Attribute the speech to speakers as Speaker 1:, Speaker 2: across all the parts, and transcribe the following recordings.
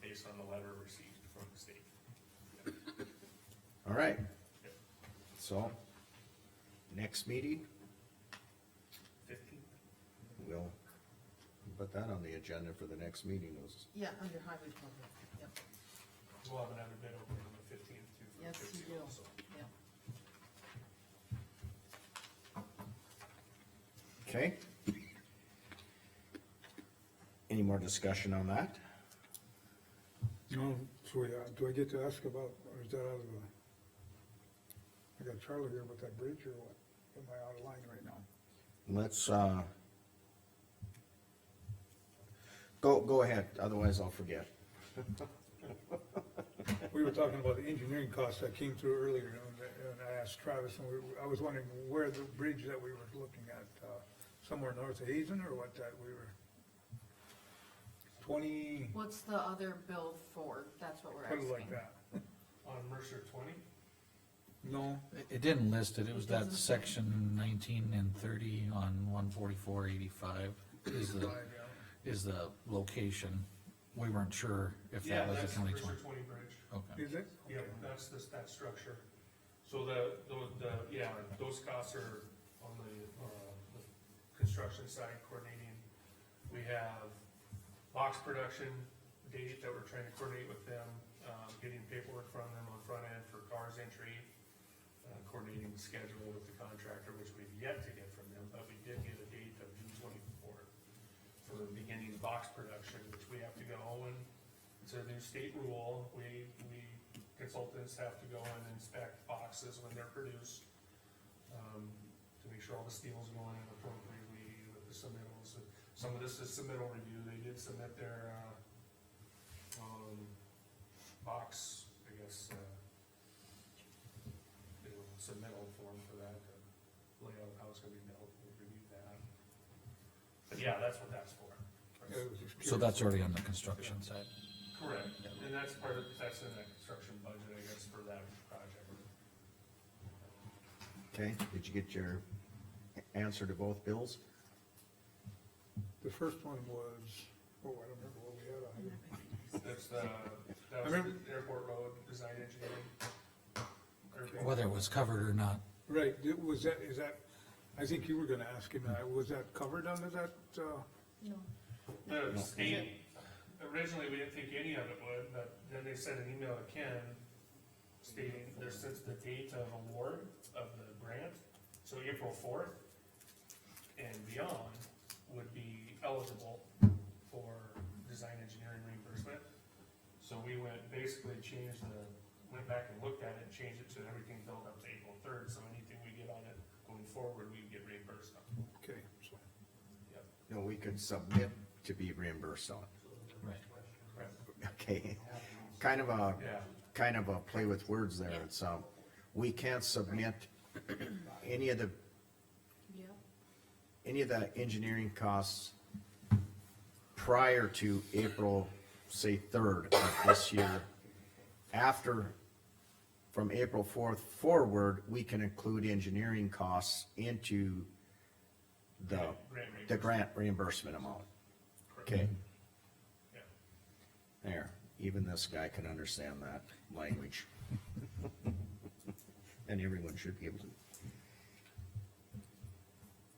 Speaker 1: based on the letter received from the state.
Speaker 2: All right. So, next meeting,
Speaker 1: Fifteen,
Speaker 2: we'll put that on the agenda for the next meeting, was,
Speaker 3: Yeah, under highway department, yep,
Speaker 1: we'll have another bid opening on the fifteenth too. for the
Speaker 3: Yes, you
Speaker 1: 15
Speaker 3: will.
Speaker 1: also.
Speaker 3: yep.
Speaker 2: okay? Any more discussion on that?
Speaker 4: No, so we, uh, do I get to ask about, or is that out of the? I got Charlie here about that bridge or what? Am I out of line right now?
Speaker 2: Let's, uh, go, go ahead, otherwise I'll forget.
Speaker 4: We were talking about the engineering costs that came through earlier and I- and I asked Travis and we, I was wondering where the bridge that we were looking at, uh, somewhere north of Hazen or what that we were? Twenty,
Speaker 3: What's the other bill for? That's what we're
Speaker 4: put
Speaker 3: asking.
Speaker 4: it like that.
Speaker 1: On Mercer twenty,
Speaker 4: No,
Speaker 5: It- It didn't list it, it was
Speaker 3: It
Speaker 5: that
Speaker 3: doesn't.
Speaker 5: section nineteen and thirty on one forty-four eighty-five is the,
Speaker 4: five, yeah.
Speaker 5: is the location. We weren't sure if
Speaker 1: yeah,
Speaker 5: that was
Speaker 1: that's
Speaker 5: a
Speaker 1: the
Speaker 5: county
Speaker 1: Mercer
Speaker 5: twenty.
Speaker 1: twenty bridge.
Speaker 5: Okay,
Speaker 4: Is it?
Speaker 1: Yeah, that's this, that structure. So the, tho- the, yeah, those costs are on the, uh, the construction side coordinating. We have box production date that we're trying to coordinate with them, um, getting paperwork from them on front end for cars entry. Uh, coordinating the schedule with the contractor, which we've yet to get from them, but we did get a date of June twenty-fourth for beginning box production, which we have to go and, it's a new state rule, we, we consultants have to go and inspect boxes when they're produced, um, to make sure all the steel's going in appropriately with the submittals, some of this is submittal review, they did submit their, uh, um, box, I guess, uh, you know, submittal form for that, to lay out how it's gonna be built, we'll review that. But yeah, that's what that's for.
Speaker 4: Yeah, it was just
Speaker 5: so
Speaker 4: curious.
Speaker 5: that's already on the construction side.
Speaker 1: Correct, and that's part of, that's in that construction budget, I guess, for that project.
Speaker 2: Okay, did you get your answer to both bills?
Speaker 4: The first one was, oh, I don't remember what we had on here.
Speaker 1: That's the, that was
Speaker 4: remember-
Speaker 1: the airport road design engineering. Airport.
Speaker 5: Whether it was covered or not,
Speaker 4: Right, it- was that, is that, I think you were gonna ask him, that. was that covered under that, uh,
Speaker 3: No,
Speaker 1: The state, originally, we didn't think any of it would, but then they sent an email to Ken stating there's since the date of award of the grant, so April fourth and beyond would be eligible for design engineering reimbursement. So we went, basically changed the, went back and looked at it, and changed it to everything built up to April third, so anything we get on it going forward, we get reimbursed on.
Speaker 4: okay, so.
Speaker 1: Yep.
Speaker 2: No, we could submit to be reimbursed on.
Speaker 5: right?
Speaker 2: Okay, kind of a,
Speaker 1: Yeah.
Speaker 2: kind of a play with words there, it's, um, we can't submit any of the,
Speaker 3: yeah,
Speaker 2: any of the engineering costs prior to April, say, third of this year. After, from April fourth forward, we can include engineering costs into the,
Speaker 1: Grant
Speaker 2: the
Speaker 1: reimbursement.
Speaker 2: grant reimbursement amount. Okay,
Speaker 1: Yeah.
Speaker 2: there, even this guy can understand that language. And everyone should be able to.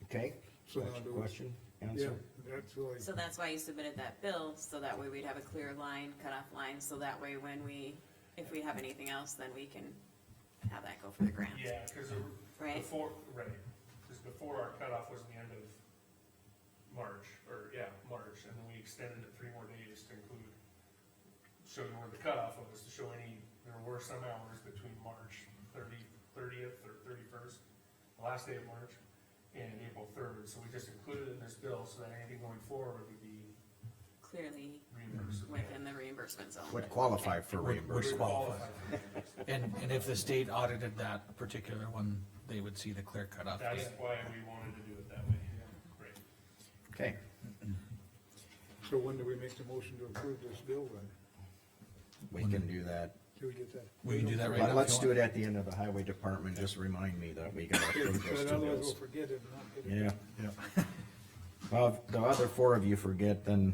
Speaker 2: Okay?
Speaker 4: So now do we-
Speaker 2: Question,
Speaker 4: Yeah,
Speaker 2: answer?
Speaker 4: that's really,
Speaker 6: So that's why you submitted that bill, so that way we'd have a clear line, cutoff line, so that way when we, if we have anything else, then we can have that go for the grant.
Speaker 1: Yeah, cause it-
Speaker 6: Right.
Speaker 1: before, right, cause before our cutoff was the end of March, or, yeah, March, and then we extended it three more days to include showing where the cutoff was, to show any, there were some hours between March thirty, thirtieth or thirty-first, last day of March, and April third, so we just included it in this bill, so that anything going forward would be
Speaker 6: Clearly
Speaker 1: reimbursed.
Speaker 6: within the reimbursement zone.
Speaker 2: Would qualify for
Speaker 5: Would- would
Speaker 2: reimbursement.
Speaker 1: Would qualify for reimbursement.
Speaker 5: And, and if the state audited that particular one, they would see the clear cutoff.
Speaker 1: That's why we wanted to do it that way. Great.
Speaker 2: Okay,
Speaker 4: so when do we make the motion to approve this bill then?
Speaker 2: we can do that,
Speaker 4: Do we get that?
Speaker 5: We can do that right now.
Speaker 2: but
Speaker 5: if
Speaker 2: let's
Speaker 5: you
Speaker 2: do
Speaker 5: want.
Speaker 2: it at the end of the highway department, just remind me that we gotta
Speaker 4: Yeah,
Speaker 2: approve
Speaker 4: but
Speaker 2: those two
Speaker 4: Otherwise we'll
Speaker 2: bills.
Speaker 4: forget it and not get it.
Speaker 2: Yeah. Yeah. Well, if the other four of you forget, then